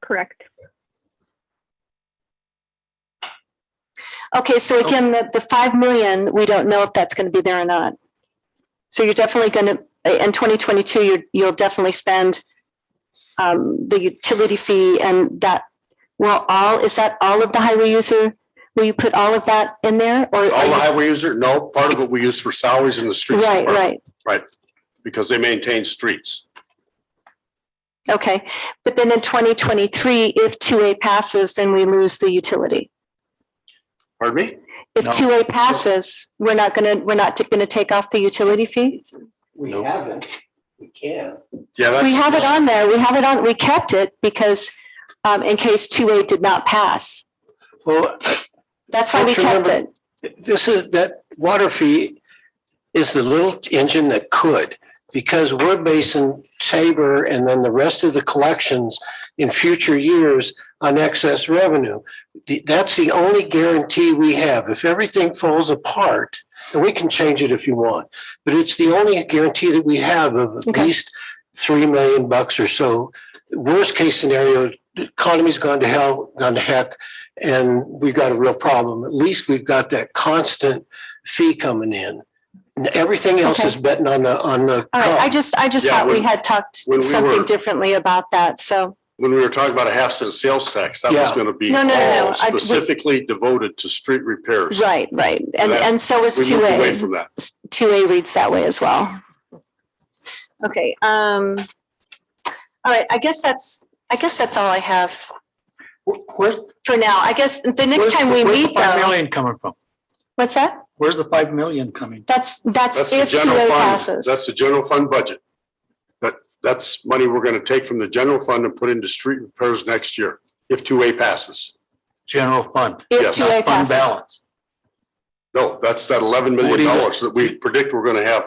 correct. Okay, so again, the, the five million, we don't know if that's gonna be there or not. So you're definitely gonna, uh, in twenty twenty-two, you, you'll definitely spend um, the utility fee and that, well, all, is that all of the highway user? Will you put all of that in there or? All the highway user, no, part of it we use for salaries in the streets Right, department, right, because they maintain streets. okay. But then in twenty twenty-three, if two A passes, then we lose the utility. Pardon me? If No. two A passes, we're not gonna, we're not gonna take off the utility fee? We No. haven't, we can. Yeah, that's. We have it on there. We have it on, we kept it because um, in case two A did not pass. Well, That's why we Don't you kept it. this is, that water fee is the little engine that could, because Wood Basin, Tabor, and then the rest of the collections in future years on excess revenue. The- That's the only guarantee we have. If everything falls apart, and we can change it if you want, but it's the only guarantee that we have of at Okay. least three million bucks or so. Worst case scenario, the economy's gone to hell, gone to heck, and we've got a real problem. At least we've got that constant fee coming in. And everything else Okay. is betting on the, on the. All right, I come. just, I just Oh. Yeah, thought we when- had talked when we something were- differently about that, so, When we were talking about a half cent sales tax, that was Yeah. gonna be No, no, no, no. all I- we- specifically devoted to street repairs. right, right. And, That- and so is We two moved away A. from that. Two A reads that way as well. Okay, um, all right, I guess that's, I guess that's all I have Wh- where- for now. I guess the next Where's time the- we where's the meet Five though, million coming from? what's that? Where's the five million coming? That's, That's that's the if two general A fund, passes. that's the general fund budget. That, that's money we're gonna take from the general fund and put into street repairs next year, if two A passes. General fund, If yes, two A not fund passes. balance. No, that's that eleven million dollars that we predict we're gonna have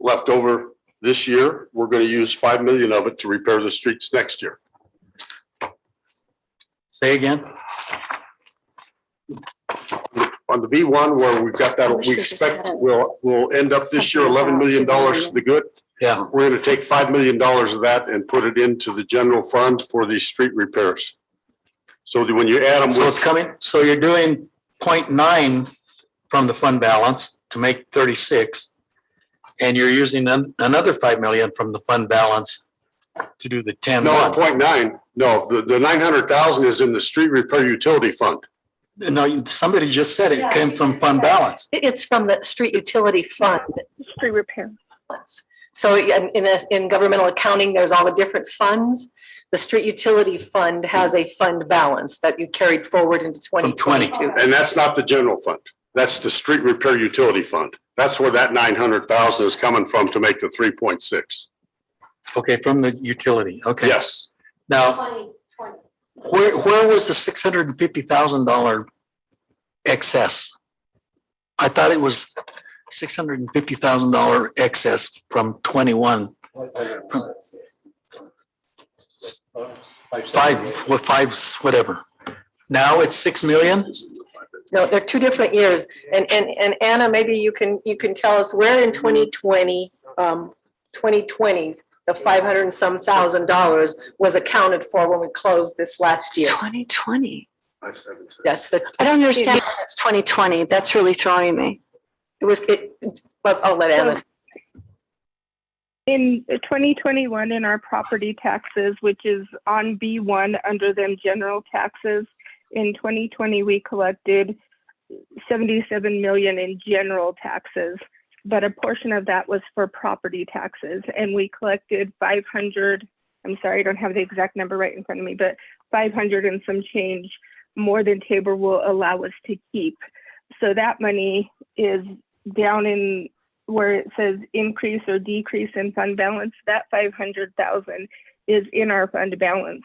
left over this year. We're gonna use five million of it to repair the streets next year. Say again? On the B one, where we've got I that, wish we they just expect had it. we'll, we'll end up this year Something eleven about million dollars $2 to the good. Yeah. We're gonna take five million dollars of that and put it into the general fund for these street repairs. So that when you add them So it's with, coming, so you're doing 0.9 from the fund balance to make thirty-six. And you're using an- another five million from the fund balance to do the ten no, one. point nine, no, the, the nine hundred thousand is in the street repair utility fund. No, you- somebody just said it came from fund balance. It- It's from the street utility fund. Street repair. So in, in a- in governmental accounting, there's all the different funds. The street utility fund has a fund balance that you carried forward into twenty 20. twenty-two. And that's not the general fund. That's the street repair utility fund. That's where that nine hundred thousand is coming from to make the three point six. Okay, from the utility, okay. Yes. Now, where, where was the six hundred and fifty thousand dollar excess? I thought it was six hundred and fifty thousand dollar excess from twenty-one, five, with five, whatever. Now it's six million? No, they're two different years. And, and, and Anna, maybe you can, you can tell us where in twenty twenty, um, twenty twenties, the five hundred and some thousand dollars was accounted for when we closed this last year. Twenty twenty. That's the. I don't understand. why It's twenty twenty. That's really throwing me. It was, it, but I'll let Anna. In 2021, in our property taxes, which is on B1 under them general taxes, in 2020, we collected 77 million in general taxes, but a portion of that was for property taxes, and we collected 500. I'm sorry, I don't have the exact number right in front of me, but 500 and some change more than Tabor will allow us to keep. So that money is down in where it says increase or decrease in fund balance, that five hundred thousand is in our fund balance.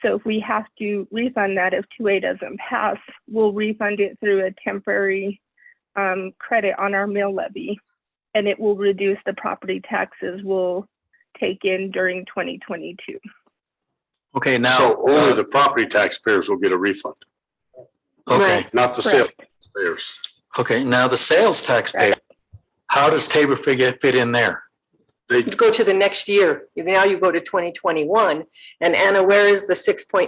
So if we have to refund that if two A doesn't pass, we'll refund it through a temporary um, credit on our mill levy. And it will reduce the property taxes we'll take in during twenty twenty-two. Okay, now, uh, So only the property taxpayers will get a refund, okay, not the sales taxpayers. okay, now the sales tax pay. How does Tabor figure fit in there? They go to the next year. Now you go to twenty twenty-one. And Anna, where is the six point